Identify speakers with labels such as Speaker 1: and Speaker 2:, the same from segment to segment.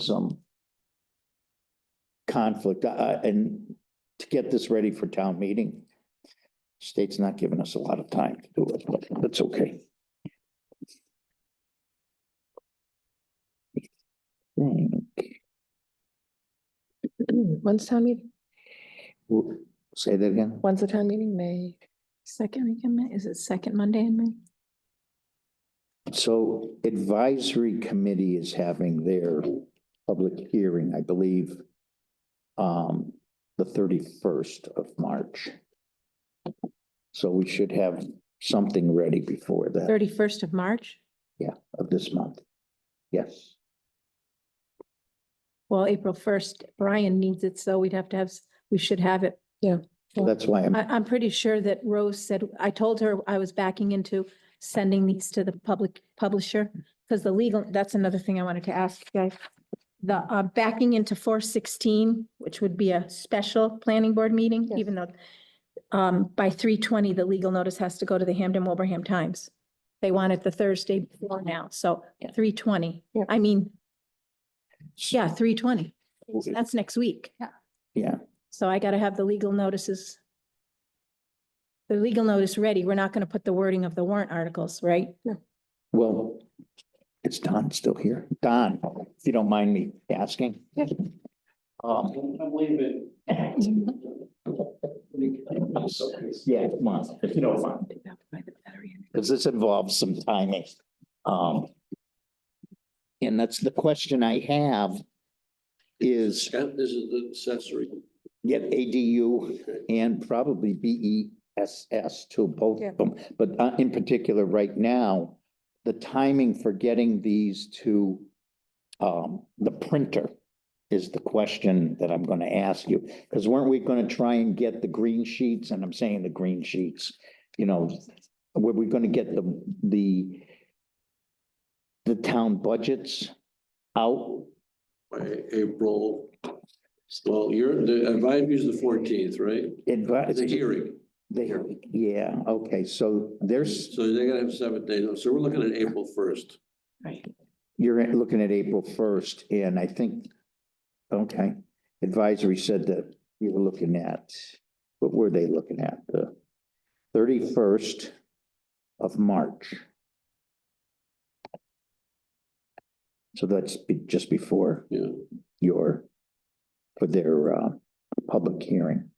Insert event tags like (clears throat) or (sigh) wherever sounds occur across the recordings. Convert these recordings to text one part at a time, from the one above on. Speaker 1: some conflict, I, I- and to get this ready for town meeting. State's not giving us a lot of time to do it, but that's okay.
Speaker 2: When's town meeting?
Speaker 1: Say that again?
Speaker 2: When's the town meeting? May?
Speaker 3: Second week in May, is it second Monday in May?
Speaker 1: So advisory committee is having their public hearing, I believe, um, the thirty-first of March. So we should have something ready before that
Speaker 3: Thirty-first of March?
Speaker 1: of this month. Yes,
Speaker 3: Well, April first, Brian needs it, so we'd have to have, s- we should have it.
Speaker 1: So that's why I'm,
Speaker 3: I, I'm pretty sure that Rose said, I told her I was backing into sending these to the public publisher. Because the legal, that's another thing I wanted to ask you guys. The, uh, backing into four sixteen, which would be a special planning board meeting,
Speaker 2: Yes.
Speaker 3: even though um, by three twenty, the legal notice has to go to the Hamden Wilbraham Times. They want it the Thursday before now, so
Speaker 2: Yeah.
Speaker 3: three twenty.
Speaker 2: Yeah.
Speaker 3: I mean, yeah, three twenty.
Speaker 1: Okay.
Speaker 3: That's next week. Yeah.
Speaker 1: yeah,
Speaker 3: So I gotta have the legal notices. The legal notice ready. We're not gonna put the wording of the warrant articles, right?
Speaker 1: well, it's Don still here. Don, if you don't mind me asking.
Speaker 2: Yeah.
Speaker 1: Um,
Speaker 4: I'm leaving.
Speaker 1: yeah, come on, if you don't mind. because this involves some timing. Um. And that's the question I have is,
Speaker 4: This is the accessory.
Speaker 1: yet ADU and probably B E S S to both
Speaker 2: Yeah.
Speaker 1: of them. But uh, in particular, right now, the timing for getting these to um, the printer is the question that I'm gonna ask you. Because weren't we gonna try and get the green sheets, and I'm saying the green sheets, you know, were we gonna get the, the the town budgets out?
Speaker 4: By April, well, you're, the advisory is the fourteenth, right?
Speaker 1: Advise-
Speaker 4: The hearing.
Speaker 1: They, yeah, okay, so there's,
Speaker 4: So they're gonna have seven days. So we're looking at April first.
Speaker 3: Right.
Speaker 1: You're looking at April first, and I think, okay, advisory said that you were looking at, what were they looking at? The thirty-first of March. So that's be- just before
Speaker 4: Yeah.
Speaker 1: your, for their, uh, public hearing.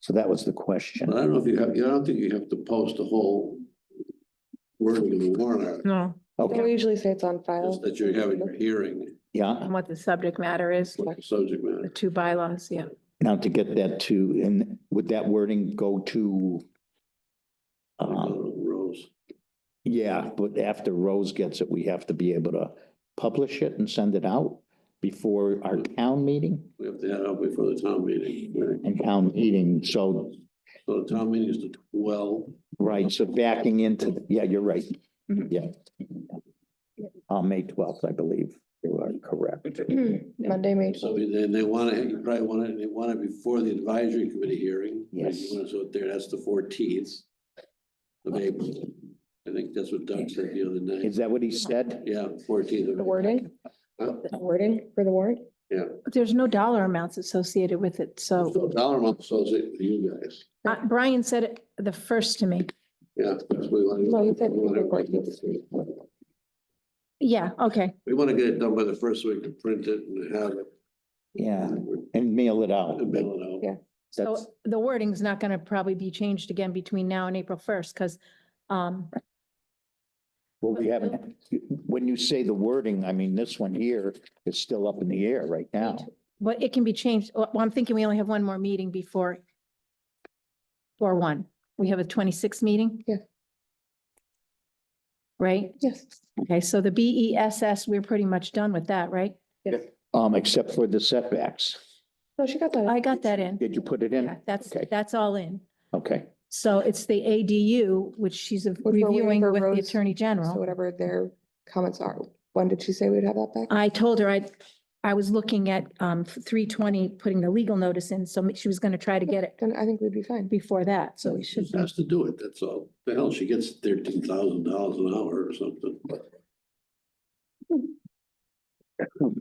Speaker 1: So that was the question.
Speaker 4: But I don't know if you have, I don't think you have to post the whole wording of the warrant article,
Speaker 3: No.
Speaker 2: Don't we
Speaker 1: Okay,
Speaker 2: usually say it's on file?
Speaker 4: just that you're having your hearing,
Speaker 1: yeah.
Speaker 3: And what the subject matter is,
Speaker 4: what the subject
Speaker 3: the
Speaker 4: matter.
Speaker 3: two bylaws, yeah.
Speaker 1: Now to get that to, and would that wording go to? Um,
Speaker 4: Rose.
Speaker 1: yeah, but after Rose gets it, we have to be able to publish it and send it out before our town meeting
Speaker 4: We have to have it before the town meeting. right?
Speaker 1: and town meeting. So,
Speaker 4: So the town meeting is the twelve.
Speaker 1: right, so backing into, yeah, you're right. Yeah. On May twelfth, I believe you are correct.
Speaker 2: (clears throat) Monday, May.
Speaker 4: So then they want to, you probably want to, they want it before the advisory committee hearing. right? You
Speaker 1: Yes.
Speaker 4: wanna- So there, that's the fourteenth of April. I think that's what Doug said the other night.
Speaker 1: Is that what he said?
Speaker 4: Yeah, fourteenth of.
Speaker 2: The wording,
Speaker 4: Huh?
Speaker 2: the wording for the warrant?
Speaker 3: But there's no dollar amounts associated with it, so.
Speaker 4: So Dollar amount, so is it for you guys.
Speaker 3: Uh, Brian said it the first to me.
Speaker 4: Yeah. that's what we want to
Speaker 2: No, you said we were
Speaker 3: Yeah, okay.
Speaker 4: We want to get it done by the first week to print it and have it.
Speaker 1: Yeah,
Speaker 4: and
Speaker 1: and mail it out.
Speaker 4: mail it out.
Speaker 2: Yeah.
Speaker 3: So
Speaker 1: That's-
Speaker 3: the wording's not gonna probably be changed again between now and April first, because um,
Speaker 1: Well, we haven't, when you say the wording, I mean, this one here is still up in the air right now.
Speaker 3: but it can be changed. Oh, Well, I'm thinking we only have one more meeting before four one. We have a twenty-sixth meeting?
Speaker 2: Yeah.
Speaker 3: Right?
Speaker 2: Yes.
Speaker 3: Okay, so the B E S S, we're pretty much done with that, right?
Speaker 1: Um, except for the setbacks.
Speaker 2: No, she got that.
Speaker 3: I got that in.
Speaker 1: Did you put it in?
Speaker 3: Yeah, That's,
Speaker 1: Okay.
Speaker 3: that's all in.
Speaker 1: Okay,
Speaker 3: So it's the A D U, which she's
Speaker 2: we're waiting
Speaker 3: reviewing
Speaker 2: for
Speaker 3: with the
Speaker 2: Rose.
Speaker 3: Attorney
Speaker 2: So
Speaker 3: General.
Speaker 2: whatever their comments are, when did she say we'd have that back?
Speaker 3: I told her I, I was looking at um three twenty, putting the legal notice in, so she was gonna try to get it
Speaker 2: Then I think we'd be fine.
Speaker 3: before that, so we
Speaker 4: She
Speaker 3: should.
Speaker 4: just has to do it, that's all. The hell, she gets thirteen thousand dollars an hour or something.